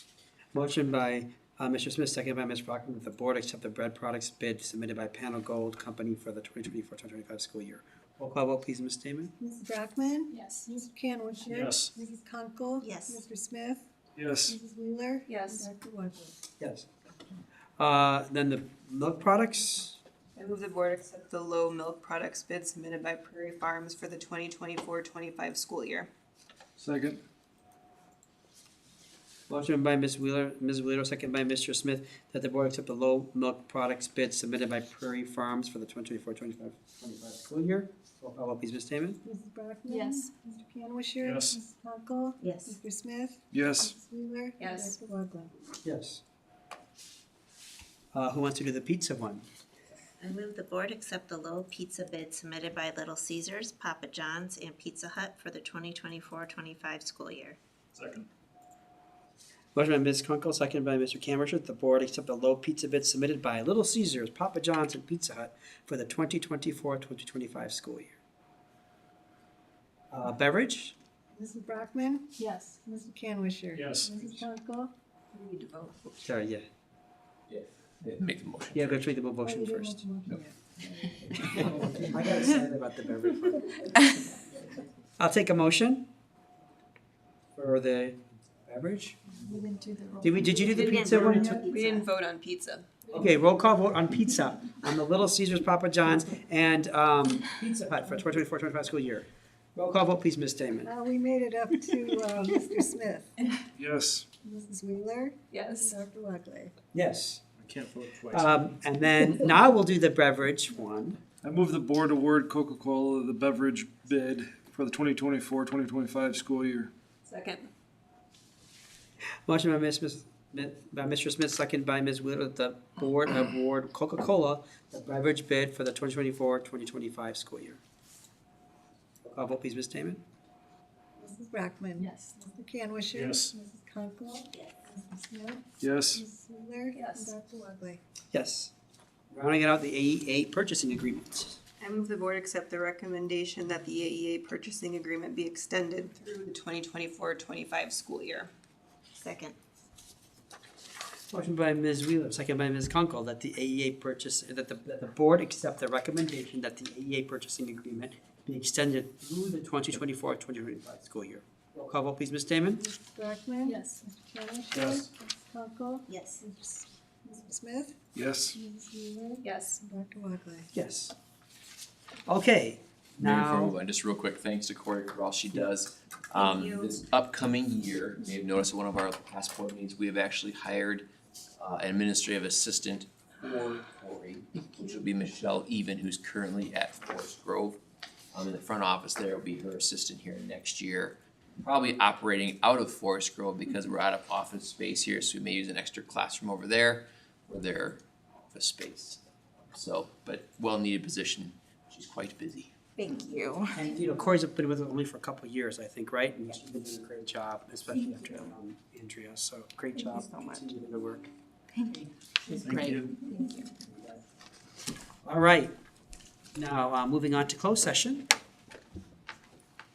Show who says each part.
Speaker 1: Motion by uh, Mr. Smith, seconded by Ms. Brockman, that the board accept the bread products bid submitted by Panel Gold Company for the 2024-2025 school year. Roll call vote, please, Ms. Damon.
Speaker 2: Mrs. Brockman?
Speaker 3: Yes.
Speaker 2: Mr. Canwisher?
Speaker 1: Yes.
Speaker 2: Mrs. Kunkel?
Speaker 4: Yes.
Speaker 2: Mr. Smith?
Speaker 1: Yes.
Speaker 2: Mrs. Wheeler?
Speaker 4: Yes.
Speaker 2: And Dr. Wonderly?
Speaker 1: Yes. Uh, Then the milk products,
Speaker 4: I move the board accept the low milk products bid submitted by Prairie Farms for the 2024-25 school year.
Speaker 5: Second.
Speaker 1: motion by Ms. Wheeler, Ms. Wheeler, seconded by Mr. Smith, that the board accept the low milk products bid submitted by Prairie Farms for the 2024-2025 school year. Roll call vote, please, Ms. Damon.
Speaker 2: Mrs. Brockman?
Speaker 3: Yes.
Speaker 2: Mr. Canwisher?
Speaker 5: Yes.
Speaker 2: Mrs. Kunkel?
Speaker 4: Yes.
Speaker 2: Mr. Smith?
Speaker 5: Yes.
Speaker 2: Mrs. Wheeler? and
Speaker 4: Yes.
Speaker 2: Dr. Wonderly?
Speaker 1: Yes. Uh, Who wants to do the pizza one?
Speaker 6: I move the board accept the low pizza bid submitted by Little Caesars, Papa John's, and Pizza Hut for the 2024-25 school year.
Speaker 5: Second.
Speaker 1: Motion by Ms. Kunkel, seconded by Mr. Camerich, that the board accept the low pizza bid submitted by Little Caesars, Papa John's, and Pizza Hut for the 2024-2025 school year. Uh, Beverage?
Speaker 2: Mrs. Brockman?
Speaker 3: Yes.
Speaker 2: Mr. Canwisher?
Speaker 5: Yes.
Speaker 2: Mrs. Kunkel?
Speaker 4: We need to vote.
Speaker 1: Sorry, yeah.
Speaker 7: Make the motion.
Speaker 1: Yeah, let's read the motion
Speaker 2: Oh, you
Speaker 1: first.
Speaker 2: didn't have to look
Speaker 1: I got excited about the beverage part. I'll take a motion for the beverage.
Speaker 2: yet. We didn't do the roll.
Speaker 1: Did we, did you do the pizza one? too?
Speaker 4: We didn't vote on pizza.
Speaker 1: Okay, roll call vote on pizza, on the Little Caesars, Papa John's, and um, Pizza Hut for 2024-25 school year. Roll call vote, please, Ms. Damon.
Speaker 2: Uh, we made it up to, uh, Mr. Smith,
Speaker 5: Yes.
Speaker 2: Mrs. Wheeler, and
Speaker 4: Yes.
Speaker 2: Dr. Wonderly.
Speaker 1: Yes.
Speaker 5: I can't vote twice.
Speaker 1: Um, And then now we'll do the beverage one.
Speaker 5: I move the board award Coca-Cola the beverage bid for the 2024-2025 school year.
Speaker 4: Second.
Speaker 1: Motion by Ms. Smith- by Mr. Smith, second by Ms. Wheeler, that the board award Coca-Cola the beverage bid for the 2024-2025 school year. Roll call vote, please, Ms. Damon.
Speaker 2: Mrs. Brockman.
Speaker 3: Yes.
Speaker 2: Mr. Canwisher.
Speaker 5: Yes.
Speaker 2: Mrs. Kunkel. Mr. Smith.
Speaker 5: Yes.
Speaker 2: Mrs. Wheeler.
Speaker 4: Yes.
Speaker 2: And Dr. Wonderly.
Speaker 1: Yes. Rounding it out, the AE8 purchasing agreement.
Speaker 4: I move the board accept the recommendation that the AEA purchasing agreement be extended through the 2024-25 school year.
Speaker 6: Second.
Speaker 1: Motion by Ms. Wheeler, second by Ms. Kunkel, that the AEA purchase, that the, that the board accept the recommendation that the AEA purchasing agreement be extended through the 2024-2025 school year. Roll call vote, please, Ms. Damon?
Speaker 2: Mrs. Brockman.
Speaker 3: Yes.
Speaker 2: Mr. Canwisher.
Speaker 5: Yes.
Speaker 2: Mrs. Kunkel.
Speaker 6: Yes.
Speaker 2: Mr. S- Mr. Smith.
Speaker 5: Yes.
Speaker 2: Mrs. Wheeler.
Speaker 4: Yes.
Speaker 2: And Dr. Wonderly.
Speaker 1: Yes. Okay,
Speaker 7: Before we
Speaker 1: now,
Speaker 7: move on, just real quick, thanks to Corey for all she does.
Speaker 4: you.
Speaker 7: Um, this upcoming year, you may have noticed at one of our past board meetings, we have actually hired uh, an administrative assistant for Corey, which will be Michelle Even, who's currently at Forest Grove. Um, in the front office there will be her assistant here next year, probably operating out of Forest Grove because we're out of office space here, so we may use an extra classroom over there for their office space. So, but well-needed position, she's quite busy.
Speaker 4: Thank you.
Speaker 1: and, you know, Corey's been with us only for a couple of years, I think, right? And she's been doing a great job, especially after um, Andrea, so great
Speaker 4: Thank you
Speaker 1: job.
Speaker 4: so much.
Speaker 1: Continue to work.
Speaker 4: Thank you. It's
Speaker 5: Thank
Speaker 4: great.
Speaker 5: you.
Speaker 1: All right, now, uh, moving on to closed session.